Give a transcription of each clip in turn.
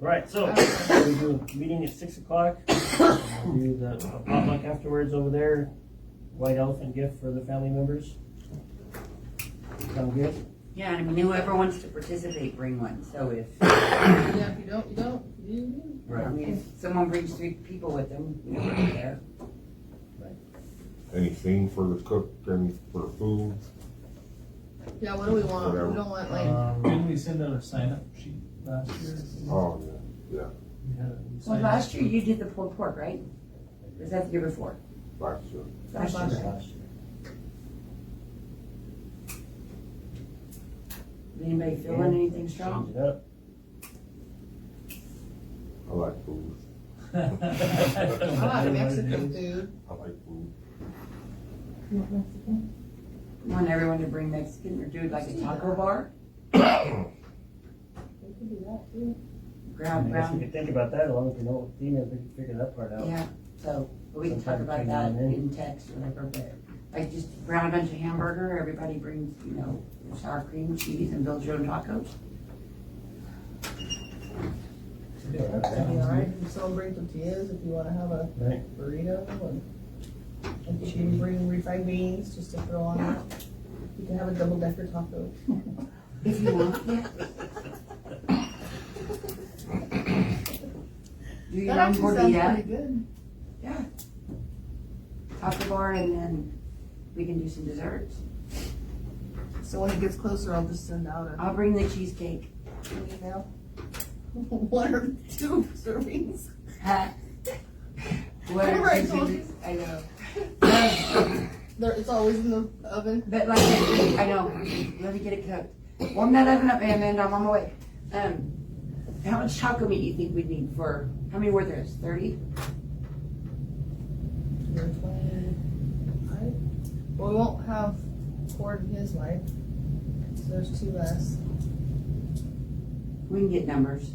Right, so we do a meeting at six o'clock. We'll Do the a potluck afterwards over there. White elephant gift for the family members. Sound good? Yeah, and I mean, whoever wants to participate, bring one, so if, Yeah, if you don't, you don't. You- you- I mean, if someone brings three people with them, you know, we're there. Anything for the cook and for food? Yeah, what do we want? We don't want like, Um, Didn't we send out a sign up sheet last year? Oh, yeah. We had a- we Well, signed up. last year you did the pulled pork, right? Was that the year before? Last year. Last Last year. Anybody feeling anything strong? Change it up. I like food. I I like don't know what it Mexican is. food. I like food. Want everyone to bring Mexican or do like a taco bar? I guess we Ground, ground, could think about that, as long as we know what theme is, we can figure that part out. yeah, so we can talk Sometime between about that now and then. in text or whatever, but like just ground bunch of hamburger, everybody brings, you know, sour cream, cheese and build your own tacos. That'd be all right. If someone brings tortillas, if you wanna have a Right. burrito and and you can bring refried beans just to throw on it. You can have a double decker taco. If you want, yeah. Do your own tortilla, good. taco bar, and then we can do some desserts. So when it gets closer, I'll just send out I'll bring the cheesecake. an email. One or two servings. Huh? Remember I told you? I know. There, it's always in the oven. But like, I I know, let me get it cooked. Warm that oven up, Amanda, I'm on my way. Um, how much taco meat you think we'd need for, how many were there, thirty? You're twenty-five. Well, we won't have Cord and his wife, so there's two less. We can get numbers,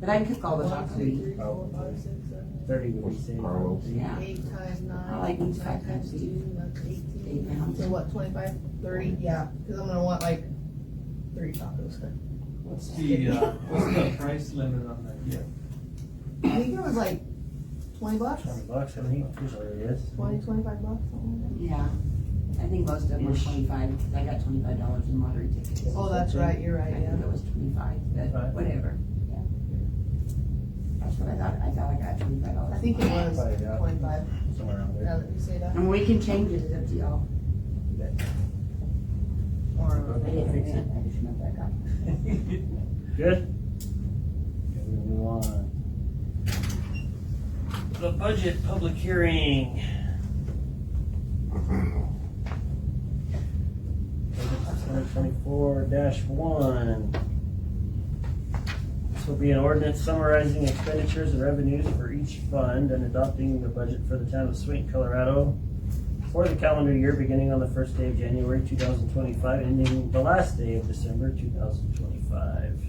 but I can cook all the One, taco two, meat. three, four, five, six, seven, Thirty would be safe. Carlos. Yeah. eight times I like nine, these nine five times two, times that's Eight eighteen. pounds. So what, twenty-five, thirty, yeah, cause I'm gonna want like three tacos. What's the, uh, what's the price limit on that? I Yeah. think it was like twenty bucks, Twenty bucks, I think, usually it is. twenty, twenty-five bucks, something like Yeah, I think most of them were twenty-five, 'cause I got twenty-five dollars in lottery tickets. that. Oh, that's right, you're I right, yeah. think it was twenty-five, but Right. whatever, yeah. That's what I thought, I thought I got twenty-five I dollars. think it was Probably, yeah. twenty-five, Somewhere around now there. that you say that. And we can change it, it's up to y'all. Or, Okay, fix it. I just remember I got. Good? Okay, we're gonna move on. The budget public hearing. Twenty-four dash one. This will be an ordinance summarizing expenditures and revenues for each fund and adopting the budget for the town of Swain, Colorado for the calendar year beginning on the first day of January two thousand twenty-five, ending the last day of December two thousand twenty-five.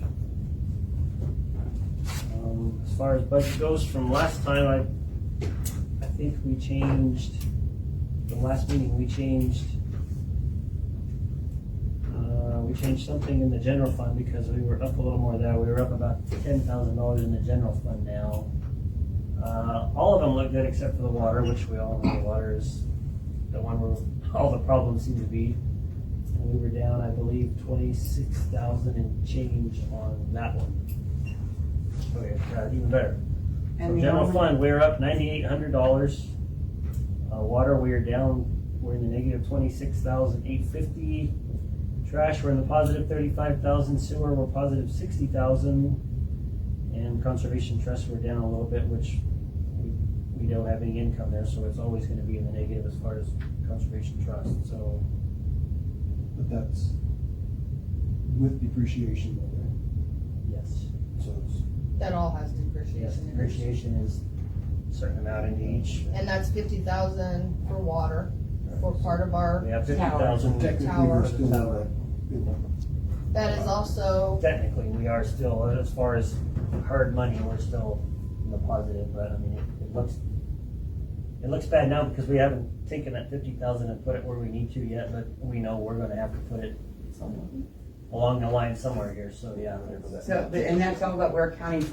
Um, as far as budget goes, from last time, I, I think we changed, the last meeting, we changed, uh, we changed something in the general fund because we were up a little more there. We were up about ten thousand dollars in the general fund now. Uh, all of them look good except for the water, which we all know the water is the one where all the problems seem to be. And we were down, I believe, twenty-six thousand and change on that one. Okay, uh, even better. And From the general only- fund, we're up ninety-eight hundred dollars. Uh, water, we are down, we're in the negative twenty-six thousand eight fifty. Trash, we're in the positive thirty-five thousand. Sewer, we're positive sixty thousand. And conservation trust, we're down a little bit, which we, we don't have any income there, so it's always gonna be in the negative as far as conservation trust, so. But that's with depreciation though, right? Yes. So it's, that all has Yes, depreciation in it. depreciation is a certain amount into each. And that's fifty thousand for water, for part of our, We have fifty so thousand. technically, Tower. we're still in the, in the that is also, technically, we are still, as far as hard money, we're still in the positive, but I mean, it, it looks, it looks bad now because we haven't taken that fifty thousand and put it where we need to yet, but we know we're gonna have to put it along the line somewhere here, so yeah. it's- So, but- and that's all that we're accounting for